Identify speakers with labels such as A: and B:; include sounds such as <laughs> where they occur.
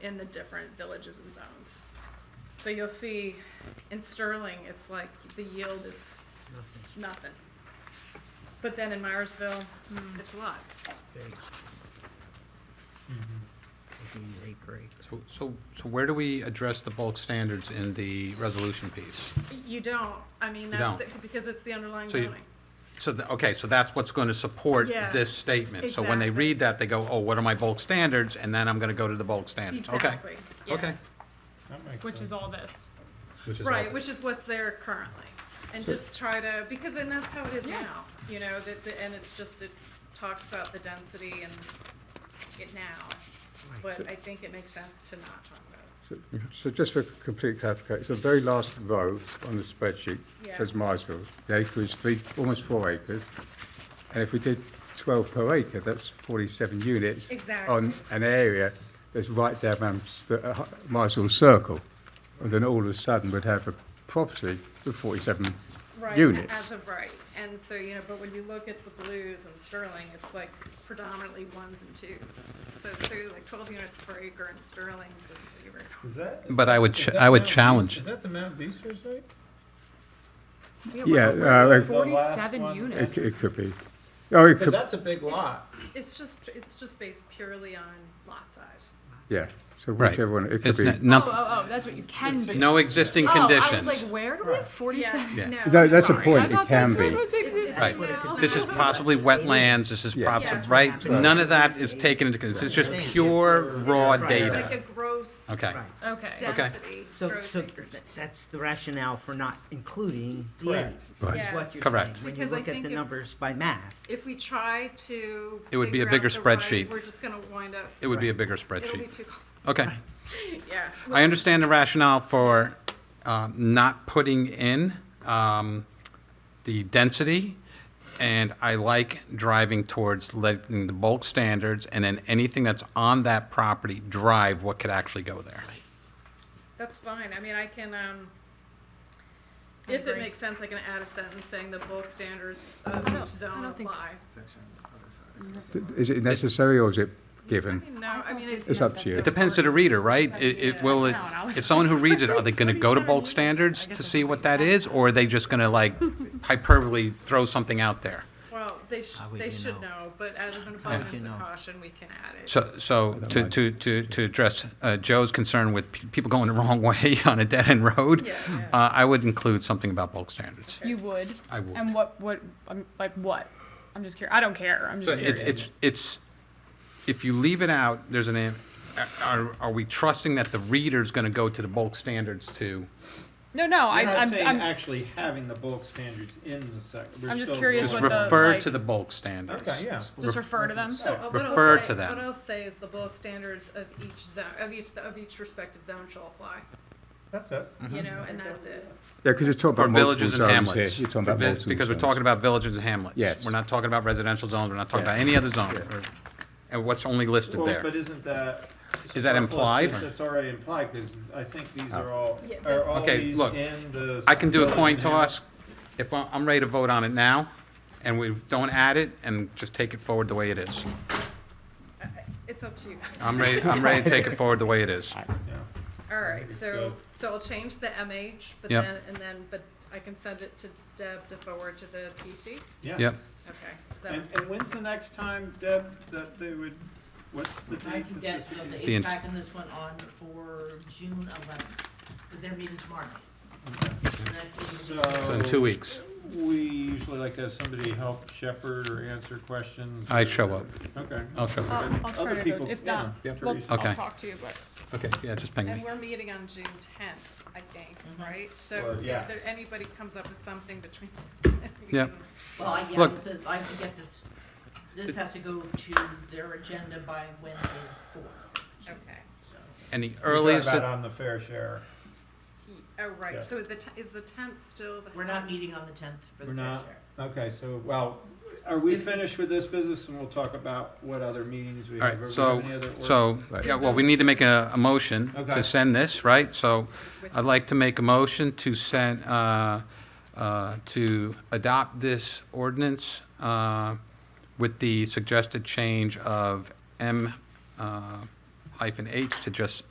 A: in the different villages and zones. So you'll see in Sterling, it's like the yield is
B: Nothing
A: nothing. But then in Myersville, mm, it's a lot.
B: big.
C: Mm-hmm.
B: These eight acres.
D: So, so, so where do we address the bulk standards in the resolution piece?
A: You don't, I mean,
D: You
A: that's,
D: don't.
A: the- because it's the underlying
D: So you-
A: zoning.
D: So, the- okay, so that's what's going to support
A: Yeah.
D: this statement. So when they
A: Exactly.
D: read that, they go, oh, what are my bulk standards? And then I'm going to go to the bulk standards. Okay.
A: Exactly. yeah.
D: Okay.
E: That makes
F: which is
E: sense.
F: all this.
D: Which is
A: Right,
D: all-
A: which is what's there currently. And just try to, because then that's how it is
F: Yeah.
A: now, you know, that, the- and it's just, it talks about the density and it now. But I think it makes sense to not talk about it.
G: So- So just for complete clarification, so the very last row on the spreadsheet
A: Yeah.
G: says Myersville. The acre is three, almost four acres. And if we did 12 per acre, that's 47 units.
A: Exactly.
G: On an area that's right down Mams- the, uh, Hy- Myersville Circle. And then all of a sudden, we'd have a property with 47
A: Right,
G: units.
A: As of right, and so, you know, but when you look at the blues and Sterling, it's like predominantly ones and twos. So clearly like twelve units per acre in Sterling doesn't really work.
E: Is that? is
D: But I would,
E: that
D: ch- I would
E: Mount Beast-
D: challenge.
E: Is that the Mount Beasley site?
G: Yeah, uh, it-
E: The
F: Forty-seven
E: last one.
G: It
F: units.
G: it could be. Oh, it
E: Because
G: could,
E: that's a big lot.
A: It's just, it's just based purely on lot size.
G: yeah. So
D: Right.
G: whichever one, it could
D: It's
G: be.
D: n-
F: Oh,
D: no,
F: oh, oh, that's what you can do.
D: no existing
F: Oh, I was
D: conditions.
F: like, where do we have forty-seven?
D: Yeah.
A: No,
G: That- That's a
A: sorry.
F: I
G: point, it
F: thought
G: can
F: that's
G: be.
F: what was existing.
D: Right.
A: No.
D: This is possibly wetlands, this is
G: Yeah.
D: props,
A: Yeah.
D: right? None of that is taken into, consideration. it's just pure raw
A: Like a
D: data.
A: gross
D: Okay.
F: Okay.
A: density,
C: So,
A: gross
C: so
A: acreage.
C: th- that's the rationale for not including the
E: Correct.
C: A,
G: Right.
C: is what
A: Yes.
C: you're
D: Correct.
C: saying, when you
A: Because I
C: look at
A: think
C: the
A: it-
C: numbers by math.
A: If we try to.
D: It would be a
A: figure out
D: bigger
A: the right,
D: spreadsheet.
A: We're just gonna wind up,
D: It would be a bigger
A: it'll be
D: spreadsheet.
A: too,
D: Okay.
A: <laughs> yeah.
D: I understand the rationale for um, not putting in um, the density, and I like driving towards letting the bulk standards, and then anything that's on that property drive what could actually go there.
A: That's fine, I mean, I can, um, if it
F: agree.
A: makes sense, I can add a sentence saying the bulk standards of
F: I don't-
A: each
F: I
A: zone
F: don't think-
A: apply.
G: D- Is it necessary or is it given?
A: No, I mean, it's,
G: It's up to you.
D: It depends to the reader, right? It, it will, it- if someone who reads it, are they gonna go to bulk standards to see what that is, or are they just gonna like hyperbole throw something out there?
A: well, they sh-
C: How would
A: they
C: you
A: should
C: know?
A: know, but out of an abundance
C: you
A: of
C: know?
A: caution, we can add it.
D: So, so to, to, to, to address uh, Joe's concern with pe- people going the <laughs> wrong way on a dead-end road,
A: Yeah, yeah.
D: <clears throat> uh, I would include something about bulk standards.
F: You would.
D: I would.
F: And what, what, um, like what? I'm just curious. I don't care. I'm
D: So
F: just
D: it's,
F: curious.
D: it's, it's, if you leave it out, there's an, am- are, are we trusting that the reader's gonna go to the bulk standards to?
F: No, no, I,
E: We're not
F: I'm,
E: saying
F: I'm,
E: actually having the bulk standards in the sec. we're
F: I'm just
E: still
F: curious
D: Just
E: going-
F: what the-
D: refer
F: like-
D: to the bulk standards.
E: Okay, yeah.
F: just refer to them.
A: So uh, what I'll
D: Refer
A: say-
D: to them.
A: What I'll say is the bulk standards of each zone, of each, of each respective zone shall apply,
E: That's it.
D: Mm-hmm.
A: you know, and that's it.
G: Yeah, because you're talking
D: For
G: about multiple
D: villages
G: zones
D: and
G: here.
D: hamlets.
G: You're talking
D: For
G: about
D: vi-
G: multiple
D: Because we're
G: zones.
D: talking about villages and hamlets.
G: Yes.
D: We're not talking about residential zones, we're not talking
G: Yeah.
D: about any other zone, or- and what's only listed
E: Well,
D: there.
E: but isn't that?
D: Is that implied? Oh.
E: That's already implied, because I think these are all,
A: Yeah,
E: are all
D: Okay,
E: these
D: look,
E: in the.
D: I can do a
E: village
D: coin
E: now?
D: toss. If I- I'm ready to vote on it now, and we don't add it, and just take it forward the way it is.
A: It's up to you guys. <laughs>
D: I'm ready, I'm ready to take it forward the way it is.
E: Yeah.
A: All right,
E: think it's
A: so,
E: good.
A: so I'll change the MH, but
D: Yep.
A: then, and then, but I can send it to Deb to forward to the TC?
E: Yeah.
D: Yep.
A: Okay, is that,
E: And, and when's the next time, Deb, that they would, what's the
H: I
E: date
H: can
E: that
H: get
E: this would
H: the
D: The ins-
H: HVAC and this one on for June eleventh, because they're meeting tomorrow. And that's meeting is-
D: So in
E: be?
D: two weeks,
E: We usually like to have somebody help shepherd or answer questions.
D: I
E: or-
D: show up.
E: Okay.
D: I'll show
F: I'll,
D: up.
F: I'll try
E: Other
F: to go.
E: people,
F: If
E: yeah.
F: not,
D: Yep.
F: we'll,
E: Teresa.
D: Okay.
F: I'll talk to you, but.
D: Okay, yeah, just ping
A: and
D: me.
A: we're meeting on June tenth, I think, right?
E: Well,
A: So if
E: yes.
A: there, anybody comes up with something between. we
D: Yep.
A: can-
H: Well, I, yeah, I
D: Look.
H: have to- I can get this, this has to go to their agenda by Wednesday the fourth,
A: <laughs> Okay,
H: so.
D: And the
E: We talk
D: earliest,
E: about
D: that-
E: on the fair share.
A: Ye- oh,
E: Yeah.
A: right, so the, te- is the tenth still the?
H: We're not
A: house?
H: meeting on the tenth for the
E: We're
H: fair
E: not.
H: share.
E: Okay, so, well, are we finished with this business and we'll talk about what other meetings we
D: all
E: have? Or
D: right,
E: we
D: so,
E: have any other work?
D: so,
G: Right.
D: yeah, well, we need to make a, a motion to
E: Okay.
D: send this, right? So
A: With-
D: I'd like to make a motion to send, uh, uh, to adopt this ordinance uh, with the suggested change of M uh, hyphen H to just